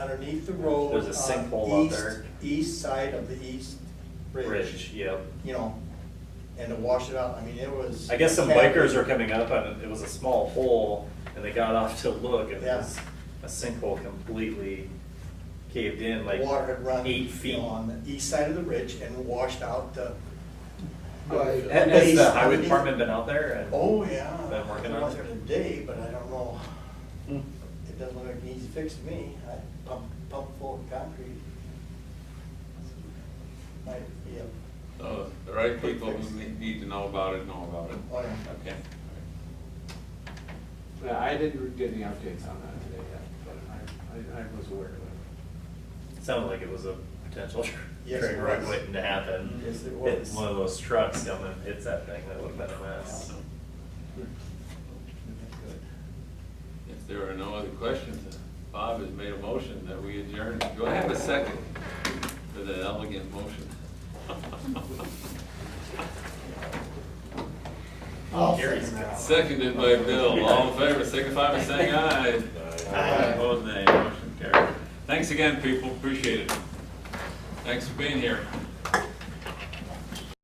underneath the road. There's a on sinkhole out east- there. East side of the east bridge. bridge, yep. You know, and to wash it out, I mean, it was. I guess some bikers were coming up and it was a small hole and they got off to look and it Yeah. was a sinkhole completely caved in, like Water had run. eight you feet. know, On the east side of the ridge and washed out the. Right. Ha- Has the base highway underneath. department been out there? and- Oh, yeah. Been working They're on there it? Today, but I don't know, it doesn't look like it needs to fix to me, I pump, pump full of concrete. Might be a, So the right people who ne- need to know about it, know about it. Oh, yeah. Okay. Yeah, I didn't get any updates on that today yet, but I, I I was aware of it. Sounded like it was a potential Yes, train it wreck was. waiting to happen. Yes, it Hit was. One of those trucks down and hits that thing, that would've been a mess. If there are no other questions, then Bob has made a motion that we adjourn. Do I have a second for that elegant motion? Gary's got- Seconded by Bill. All in favor, signify by saying aye. Aye. Opposed, nay. Motion carried. Thanks again, people. Appreciate it. Thanks for being here.